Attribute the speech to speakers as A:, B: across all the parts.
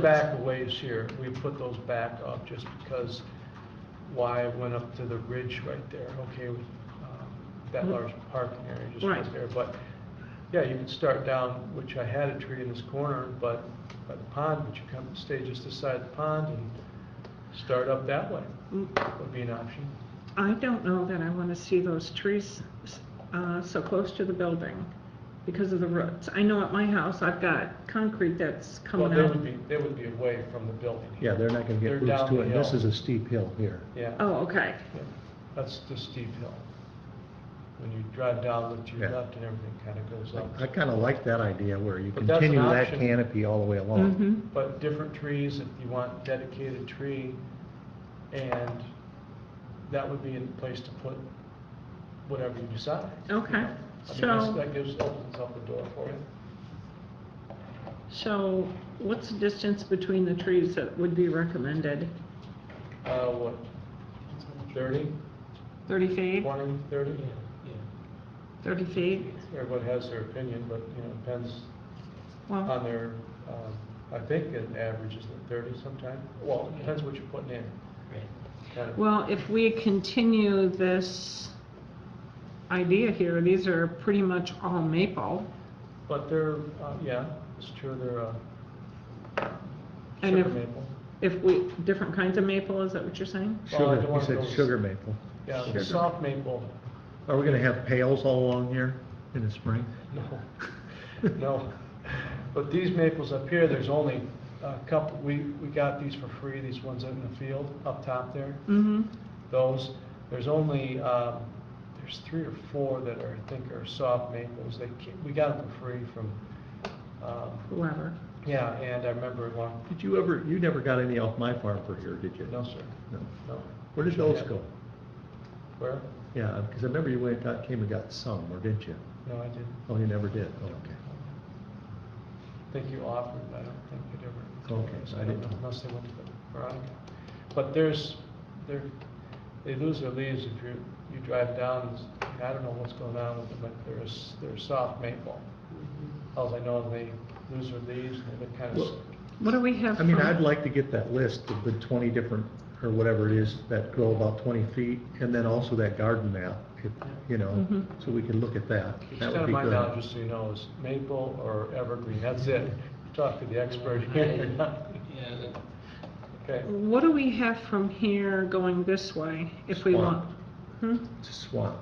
A: back a ways here, we put those back up just because why I went up to the ridge right there, okay, um, that large parking area just right
B: Mm-hmm. Right.
A: there, but, yeah, you can start down, which I had a tree in this corner, but, by the pond, but you come, stay just beside the pond and start up that way, would be an option.
B: I don't know that I want to see those trees uh, so close to the building because of the roots. I know at my house, I've got concrete that's coming
A: Well, they
B: out.
A: would be, they would be away from the building.
C: Yeah, they're not gonna
A: They're
C: get roots
A: down
C: to
A: the
C: it, this
A: hill.
C: is a steep hill here.
A: Yeah.
B: Oh, okay,
A: Yeah, That's the steep hill. When you drive down with your
C: Yeah.
A: left and everything kind of goes up.
C: I kinda like that idea where you
A: But that's an
C: continue that
A: option.
C: canopy all the way along.
B: Mhm.
A: But different trees, if you want dedicated tree, and that would be a place to put whatever you decide. you
B: Okay,
A: know. I mean, that's-
B: so-
A: that gives, opens up the door for you.
B: So what's the distance between the trees that would be recommended?
A: Uh, what, thirty,
B: 30 feet?
A: twenty, thirty?
B: 30 feet?
A: Everyone has their opinion, but, you know, depends on
B: Well,
A: their, um, I think an average is like thirty sometime. Well, it depends what you're putting in. kind of.
B: well, if we continue this idea here, these are pretty much all maple.
A: But they're, uh, yeah, it's true, they're, uh,
B: And
A: sugar
B: if-
A: maple.
B: If we, different kinds of maple, is that what you're saying?
A: Well, I don't
C: Sugar,
A: wanna go
C: you said
A: with-
C: sugar maple.
A: Yeah,
C: Sugar.
A: soft maple,
C: Are we gonna have pails all along here in the spring?
A: no, no. But these maples up here, there's only a couple, we, we got these for free, these ones out in the field, up top there,
B: Mm-hmm.
A: those. There's only, um, there's three or four that are, I think are soft maples, they, ca- we got them for free from, um,
B: Whoever.
A: yeah, and I remember one,
C: Did you ever, you never got any off my farm for here, did you?
A: no, sir,
C: No.
A: no.
C: Where did those go?
A: Where?
C: Yeah, because I remember you went, out came and got some, or didn't you?
A: No, I didn't.
C: Oh, you never did, oh, okay.
A: I think you offered, but I don't think it ever.
C: Okay,
A: so
C: I didn't know.
A: Unless they went to Veronica. But there's, they're, they lose their leaves if you, you drive down, it's- I don't know what's going on with them, but there's, they're soft maple. Alls I know is they lose their leaves and they look kind of,
C: Well-
B: What do we have?
C: I mean,
B: from-
C: I'd like to get that list of the twenty different, or whatever it is, that grow about twenty feet, and then also that garden map, if, you know,
B: Mhm.
C: so we can look at that. That
A: extent
C: would
A: of
C: be
A: my knowledge,
C: good.
A: just so you know, is maple or evergreen, that's it. Talk to the expert here.
D: Yeah,
A: Okay,
B: What do we have from here going this way if we want?
C: Swamp.
B: Hmm?
C: It's a Swamp.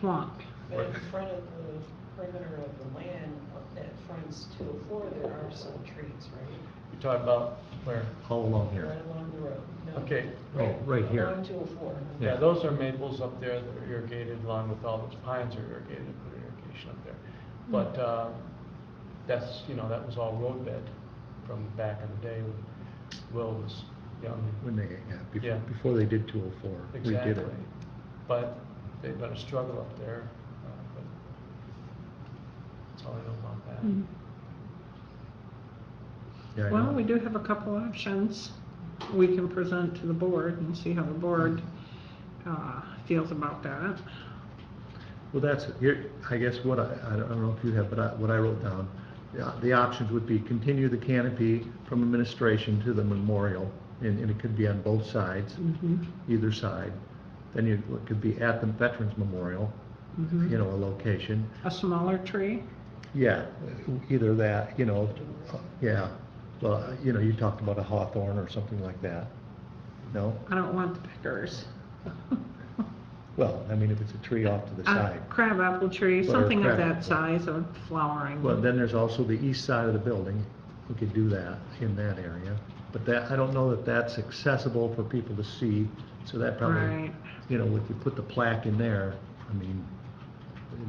B: Swamp.
E: But in front of the perimeter of the land that fronts 204, there are some trees, right?
A: you're talking about where?
C: all along here.
E: Right along the road. No.
A: Okay.
C: Oh, right here.
E: Along 204.
A: Yeah,
C: Yeah.
A: those are maples up there that are irrigated along with all those pines are irrigated, put irrigation up
C: Mm-hmm.
A: there. But, uh, that's, you know, that was all roadbed from back in the day when Will was young.
C: When they, yeah,
A: Yeah.
C: before, before they did two oh four, we did
A: Exactly.
C: it.
A: But they've got a struggle up there. uh, but That's all I know about
C: Mm.
A: that.
B: Mhm.
C: Yeah, I
B: Well,
C: know.
B: we do have a couple options we can present to the board and see how the board uh, feels about that.
C: Well, that's, here, I guess what I, I don't I don't know if you have, but I, what I wrote down, the, the options would be continue the canopy from administration to the memorial, and, and it could be on both sides,
B: Mhm,
C: either side. Then you, it could be at the Veterans Memorial,
B: mhm.
C: you know, a location.
B: A smaller tree?
C: Yeah, either that, you know, yeah, well, you know, you talked about a hawthorn or something like that. No?
B: I don't want the pickers.
C: Well, I mean, if it's a tree off to the
B: A
C: side.
B: crabapple Uh, tree,
C: Or
B: something of
C: crabapple.
B: that size of flowering.
C: Well, then there's also the east side of the building. We could do that in that area. But that, I don't know that that's accessible for people to see, so that probably,
B: Right.
C: you know, if you put the plaque in there, I mean,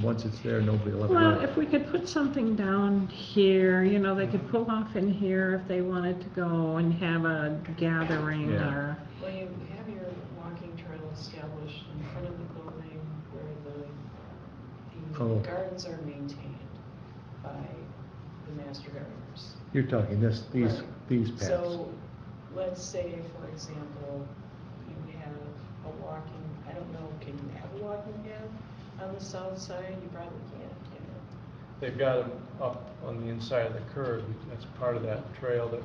C: once it's there, nobody will ever.
B: Well,
C: know.
B: if we could put something down here, you know, they could pull off in here if they wanted to go and have a gathering
C: Yeah.
B: or,
E: Well, you have your walking trail established in front of the building where the,
C: Oh.
E: the gardens are maintained by the master gardeners.
C: You're talking this, these,
E: Right.
C: these paths.
E: So, let's say, for example, you have a walking, I don't know, can you have a walking path on the south side? You probably can't, can you?
A: They've got them up on the inside of the curb, that's part of that trail that